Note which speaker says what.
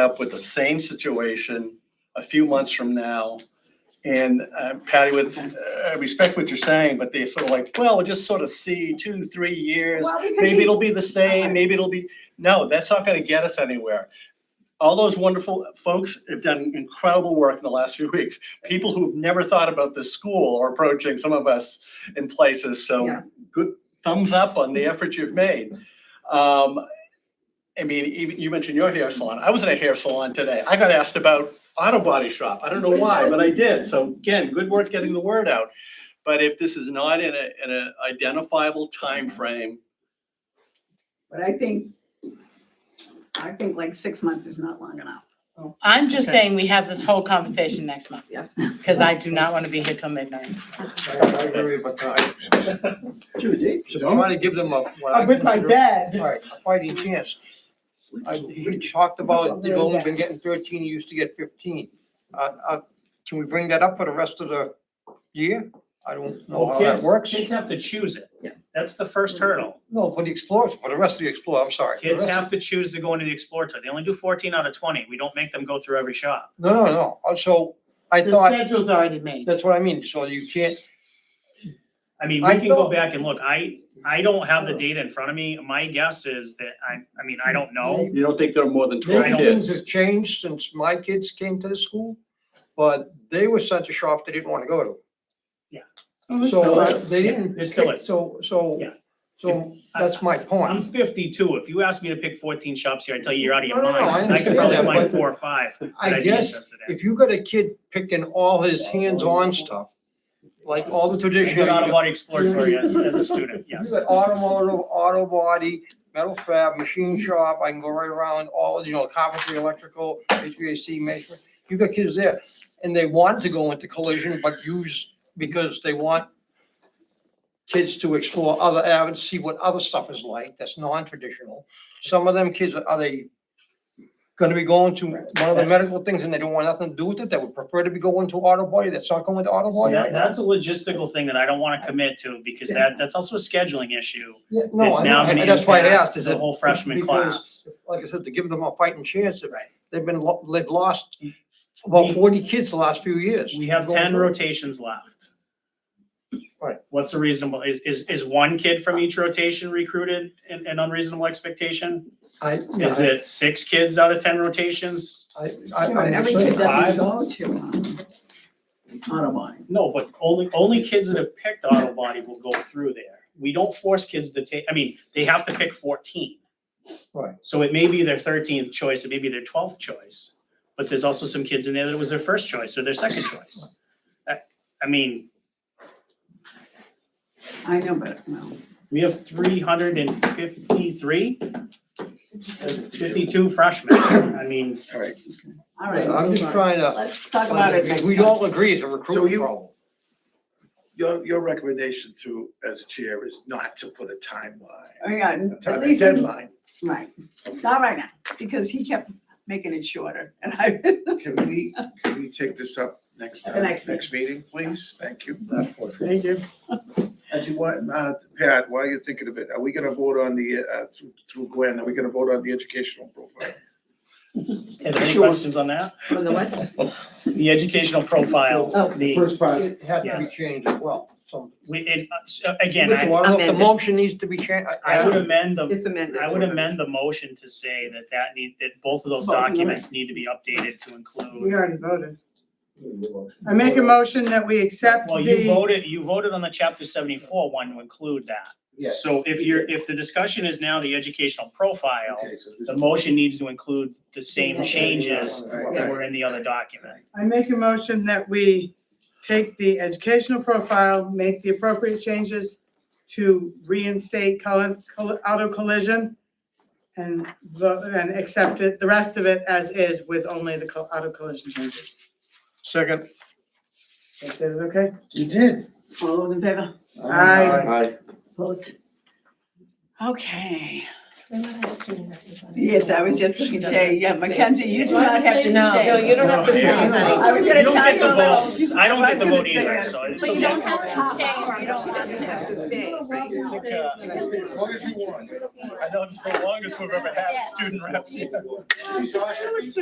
Speaker 1: up with the same situation a few months from now. And uh, Patty, with uh, I respect what you're saying, but they feel like, well, we'll just sort of see two, three years.
Speaker 2: Well, because
Speaker 1: Maybe
Speaker 2: he-
Speaker 1: it'll be the same, maybe it'll be, no, that's not gonna get us anywhere. All those wonderful folks have done incredible work in the last few weeks. People who've never thought about this school are approaching some of us in places, so
Speaker 2: Yeah.
Speaker 1: good thumbs up on the effort you've made. Um, I mean, even, you mentioned your hair salon. I was in a hair salon today. I got asked about auto body shop. I don't know why, but I did. So again, good work getting the word out. But if this is not in a, in a identifiable timeframe,
Speaker 2: But I think, I think like six months is not long enough.
Speaker 3: I'm just
Speaker 1: Okay.
Speaker 3: saying we have this whole conversation next month.
Speaker 2: Yep.
Speaker 3: Because I do not want to be here till midnight.
Speaker 4: I I agree with time. Just try to give them a, what I consider,
Speaker 3: bed.
Speaker 4: alright, a fighting chance. I, he talked about, they've only been getting thirteen, he used to get fifteen. Uh, uh, can we bring that up for the rest of the year? I don't know
Speaker 5: Well,
Speaker 4: how that
Speaker 5: kids,
Speaker 4: works.
Speaker 5: kids have to choose it.
Speaker 2: Yeah.
Speaker 5: That's the first hurdle.
Speaker 4: No, for the explorers, for the rest of the explorer, I'm sorry. for the
Speaker 5: Kids
Speaker 4: rest-
Speaker 5: have to choose to go into the Explorer Tour. They only do fourteen out of twenty. We don't make them go through every shop.
Speaker 4: No, no, no, Uh, so I
Speaker 3: The
Speaker 4: thought,
Speaker 3: schedule's already made.
Speaker 4: that's what I mean, so you can't,
Speaker 5: I mean,
Speaker 4: I
Speaker 5: we can go
Speaker 4: thought-
Speaker 5: back and look. I, I don't have the data in front of me. My guess is that I, I mean, I don't know.
Speaker 1: you don't think there are more than twelve
Speaker 5: Right.
Speaker 4: maybe things
Speaker 1: kids?
Speaker 4: have changed since my kids came to the school, but they were such a shop they didn't wanna go to.
Speaker 2: Oh,
Speaker 4: So
Speaker 5: still
Speaker 4: uh,
Speaker 5: is.
Speaker 4: they
Speaker 5: Yeah,
Speaker 4: didn't.
Speaker 5: it still
Speaker 4: pick-
Speaker 5: is.
Speaker 4: So, so,
Speaker 5: Yeah.
Speaker 4: so
Speaker 5: I-
Speaker 4: that's my
Speaker 5: I'm
Speaker 4: point.
Speaker 5: fifty-two. If you ask me to pick fourteen shops here, I tell you, you're out of your
Speaker 4: No, no,
Speaker 5: mind.
Speaker 4: no, I
Speaker 5: 'cause I could
Speaker 4: understand
Speaker 5: probably
Speaker 4: that,
Speaker 5: find
Speaker 4: but
Speaker 5: four or five that
Speaker 4: I
Speaker 5: I'd be
Speaker 4: guess
Speaker 5: interested in.
Speaker 4: If you got a kid picking all his hands-on stuff, like all the
Speaker 5: I
Speaker 4: traditional.
Speaker 5: did
Speaker 4: You got
Speaker 5: Autobody Explorer Tour as, as a student,
Speaker 4: you
Speaker 5: yes.
Speaker 4: got automotive, auto body, metal fab, machine shop, I can go right around all, you know, carpentry, electrical, HVAC measurement. You got kids there, and they want to go into collision, but use, because they want kids to explore other avenues, see what other stuff is like that's non-traditional. Some of them kids, are they gonna be going to one of the medical things and they don't want nothing to do with it? They would prefer to be going to auto body, that's not going to auto
Speaker 5: So
Speaker 4: body
Speaker 5: that,
Speaker 4: right now?
Speaker 5: that's a logistical thing that I don't wanna commit to because that, that's also a scheduling issue.
Speaker 4: Yeah, no,
Speaker 5: It's
Speaker 4: I
Speaker 5: now
Speaker 4: know,
Speaker 5: gonna
Speaker 4: and that's why I asked,
Speaker 5: impact
Speaker 4: is
Speaker 5: the
Speaker 4: it,
Speaker 5: whole freshman
Speaker 4: because-
Speaker 5: class.
Speaker 4: like I said, to give them a fighting chance, if
Speaker 5: Right.
Speaker 4: they've been, lo- they've lost about
Speaker 5: We-
Speaker 4: forty kids the last few years.
Speaker 5: We have
Speaker 4: Going
Speaker 5: ten
Speaker 4: through.
Speaker 5: rotations left.
Speaker 4: Right.
Speaker 5: What's a reasonable, is, is, is one kid from each rotation recruited an, an unreasonable expectation?
Speaker 4: I,
Speaker 5: Is
Speaker 4: yeah,
Speaker 5: it six kids out of ten rotations?
Speaker 4: I, I,
Speaker 2: You know,
Speaker 4: I,
Speaker 2: and
Speaker 4: I'm
Speaker 2: Every kid
Speaker 4: saying,
Speaker 2: doesn't
Speaker 5: Five.
Speaker 2: go to, um, Audubon.
Speaker 5: No, but only, only kids that have picked auto body will go through there. We don't force kids to take, I mean, they have to pick fourteen.
Speaker 4: Right.
Speaker 5: So it may be their thirteenth choice, it may be their twelfth choice, but there's also some kids in there that it was their first choice or their second choice. I- I mean,
Speaker 2: I know, but no.
Speaker 5: we have three hundred and fifty-three, fifty-two freshmen, I mean.
Speaker 2: All right.
Speaker 4: I'm
Speaker 2: move
Speaker 4: just
Speaker 2: on.
Speaker 4: trying to,
Speaker 2: Let's talk about it next
Speaker 4: we
Speaker 2: time.
Speaker 4: all agree it's a recruiting
Speaker 6: you-
Speaker 4: problem.
Speaker 6: Your, your recommendation to, as chair, is not to put a timeline,
Speaker 2: Oh, yeah,
Speaker 6: a
Speaker 2: at
Speaker 6: time a
Speaker 2: least,
Speaker 6: deadline.
Speaker 2: right, not right now, because he kept making it shorter, and I,
Speaker 6: Can we, can we take this up next
Speaker 2: At the
Speaker 6: time,
Speaker 2: next
Speaker 6: next meeting, please? Thank you.
Speaker 3: Thank you.
Speaker 6: And you want, uh, Pat, while you're thinking of it, are we gonna vote on the, uh, through- through Gwen, are we gonna vote on the educational profile?
Speaker 5: Any questions on that?
Speaker 7: On the west,
Speaker 5: The educational profile,
Speaker 7: Oh.
Speaker 5: the,
Speaker 4: First part. It has to be
Speaker 5: Yes.
Speaker 4: changed as well, so.
Speaker 5: we, it, uh, again,
Speaker 4: Well,
Speaker 5: I,
Speaker 4: I don't know if the
Speaker 7: Amended.
Speaker 4: motion needs to be changed.
Speaker 5: I would amend the
Speaker 7: it's amended.
Speaker 5: I would amend the motion to say that that need, that both of those
Speaker 2: Both of them.
Speaker 5: documents need to be updated to
Speaker 7: We
Speaker 5: include.
Speaker 7: already voted. I make a motion that we accept
Speaker 5: Well, you
Speaker 7: the,
Speaker 5: voted, you voted on the chapter seventy-four one to include that.
Speaker 6: Yes.
Speaker 5: So if you're, if the discussion is now the educational profile,
Speaker 6: Okay, so this-
Speaker 5: the motion needs to include the same changes that
Speaker 6: Right.
Speaker 5: were in the other document.
Speaker 7: I make a motion that we take the educational profile, make the appropriate changes to reinstate colli- colli- auto collision and vote, and accept it, the rest of it as is with only the co- auto collision changes.
Speaker 4: Second.
Speaker 7: Is that okay?
Speaker 4: You did.
Speaker 2: all those in favor?
Speaker 7: Aye.
Speaker 2: Opposed? Okay, yes, I was just gonna say, yeah, Mackenzie, you do not have to stay.
Speaker 8: No, no, you don't have to
Speaker 5: No,
Speaker 8: say
Speaker 5: yeah.
Speaker 2: I
Speaker 8: anything.
Speaker 2: was gonna
Speaker 5: You don't
Speaker 2: tell
Speaker 5: get
Speaker 2: you
Speaker 5: the
Speaker 2: a little.
Speaker 5: vote, I don't
Speaker 2: I
Speaker 5: get
Speaker 2: was
Speaker 5: the
Speaker 2: gonna
Speaker 5: vote
Speaker 2: say
Speaker 5: either,
Speaker 2: that.
Speaker 5: so it's
Speaker 8: But you
Speaker 5: okay.
Speaker 8: don't have to stay.
Speaker 7: You don't have to stay.
Speaker 6: As long as you want.
Speaker 1: I know it's the longest we've ever had a student rep.
Speaker 6: She's awesome.